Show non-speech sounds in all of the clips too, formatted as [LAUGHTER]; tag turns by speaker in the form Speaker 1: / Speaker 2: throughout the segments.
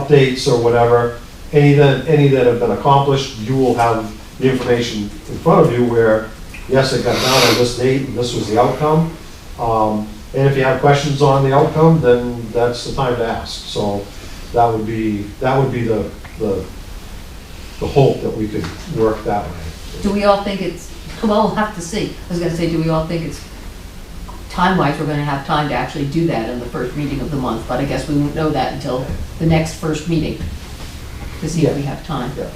Speaker 1: updates or whatever, any that, any that have been accomplished, you will have the information in front of you where, yes, it got done on this date, and this was the outcome. Um, and if you have questions on the outcome, then that's the time to ask. So that would be, that would be the, the, the hope that we could work that way.
Speaker 2: Do we all think it's, well, we'll have to see. I was gonna say, do we all think it's, time-wise, we're gonna have time to actually do that in the first meeting of the month, but I guess we won't know that until the next first meeting, to see if we have time.
Speaker 1: Yeah.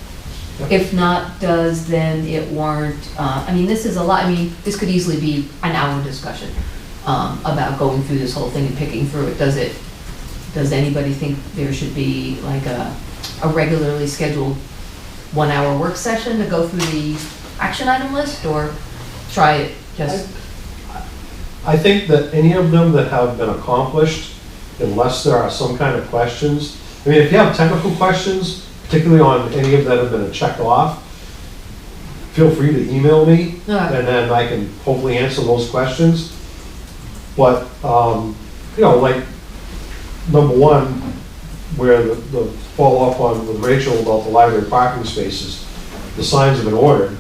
Speaker 1: Yeah.
Speaker 2: If not, does then it warrant, uh, I mean, this is a lot, I mean, this could easily be an hour discussion um, about going through this whole thing and picking through it. Does it, does anybody think there should be like a, a regularly scheduled one-hour work session to go through the action item list, or try it just,
Speaker 1: I think that any of them that have been accomplished, unless there are some kind of questions, I mean, if you have technical questions, particularly on any of that have been checked off, feel free to email me,
Speaker 2: no,
Speaker 1: and then I can hopefully answer those questions. But, um, you know, like, number one, where the, the follow-up on with Rachel about the library parking spaces, the signs have been ordered,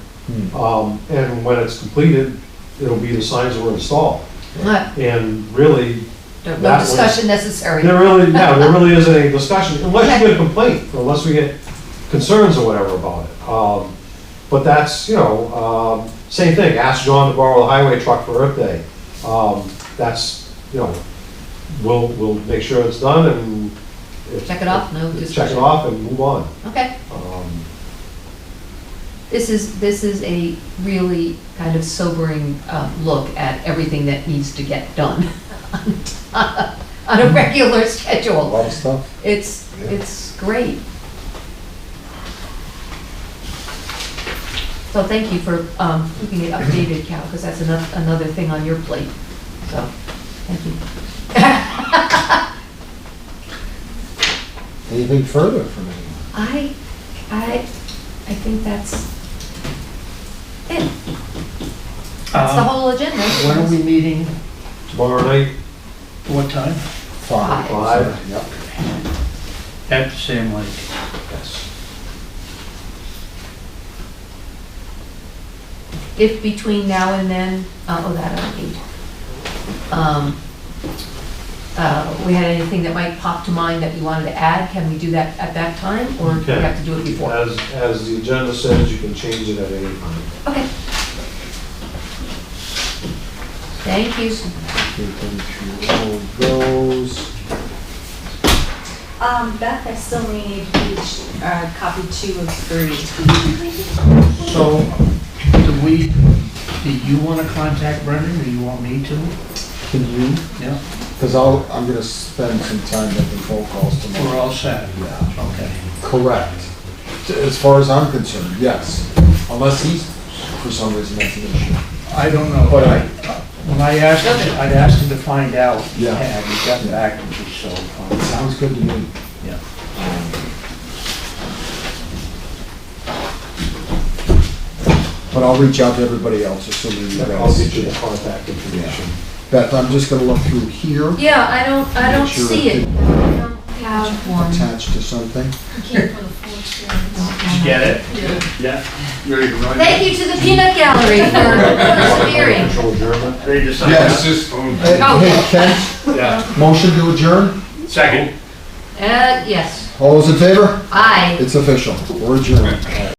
Speaker 1: um, and when it's completed, it'll be the signs that were installed.
Speaker 2: no
Speaker 1: And really,
Speaker 2: no
Speaker 1: That was-
Speaker 2: discussion necessary.
Speaker 1: there really, yeah, there really isn't any discussion, unless you get a complaint, or unless we get concerns or whatever about it. Um, But that's, you know, um, same thing, ask John to borrow the highway truck for Earth Day. Um, That's, you know, we'll, we'll make sure it's done and. if-
Speaker 2: Check it off, no
Speaker 1: Check it
Speaker 2: discussion.
Speaker 1: off and move on.
Speaker 2: Okay.
Speaker 1: Um,
Speaker 2: This is, this is a really kind of sobering uh, look at everything that needs to get done [LAUGHS] on a regular
Speaker 3: A
Speaker 2: schedule.
Speaker 3: lot of stuff.
Speaker 2: It's,
Speaker 3: Yeah.
Speaker 2: it's great. So thank you for um, keeping it updated, Cal, because that's another, another thing on your plate. So, thank you.
Speaker 3: Anything further from anyone?
Speaker 2: I, I, I think that's it. That's the
Speaker 4: Um,
Speaker 2: whole agenda.
Speaker 4: When are we meeting?
Speaker 1: Tomorrow night,
Speaker 4: What time?
Speaker 3: Five.
Speaker 1: Five.
Speaker 3: Yep.
Speaker 4: At the same lake.
Speaker 1: yes,
Speaker 2: if between now and then, uh, oh, that I don't need. Um, uh, We had anything that might pop to mind that you wanted to add, can we do that at that time, or do we
Speaker 1: Okay.
Speaker 2: have to do it before?
Speaker 1: as, as the agenda says, you can change it at any time.
Speaker 2: Okay. Thank you.
Speaker 3: Vacation goes.
Speaker 5: Um, Beth, I still need each, uh, copy two of three.
Speaker 4: So, do we, do you want to contact Brendan, or you want me to?
Speaker 3: Can you?
Speaker 4: Yeah,
Speaker 3: Because I'll, I'm gonna spend some time making phone calls
Speaker 4: we're
Speaker 3: tomorrow.
Speaker 4: all set.
Speaker 3: Yeah.
Speaker 4: Okay.
Speaker 3: Correct. T- As far as I'm concerned, yes. Unless he's, for some reason, that's an issue.
Speaker 4: I don't know.
Speaker 3: But I-
Speaker 4: When I asked, him- I'd asked him to find out.
Speaker 3: Yeah.
Speaker 4: And he got back to me, so. um,
Speaker 3: Sounds good to me.
Speaker 4: Yeah.
Speaker 3: But I'll reach out to everybody else, assuming you
Speaker 1: I'll get you the
Speaker 3: guys.
Speaker 1: contact information.
Speaker 3: Beth, I'm just gonna look through here,
Speaker 2: Yeah, I don't, I don't see it. I don't have one.
Speaker 3: attached to something.
Speaker 4: Did you get it? Yeah. Ready to run?
Speaker 2: Thank you to the Peanut Gallery [LAUGHS] for persevering.
Speaker 1: Control German.
Speaker 4: They
Speaker 3: Yes. Hey,
Speaker 2: Oh.
Speaker 3: hey, Kent,
Speaker 4: Yeah.
Speaker 3: motion to adjourn?
Speaker 4: Second.
Speaker 2: Uh, yes,
Speaker 3: All those in favor?
Speaker 2: aye.
Speaker 3: It's official. We're adjourned.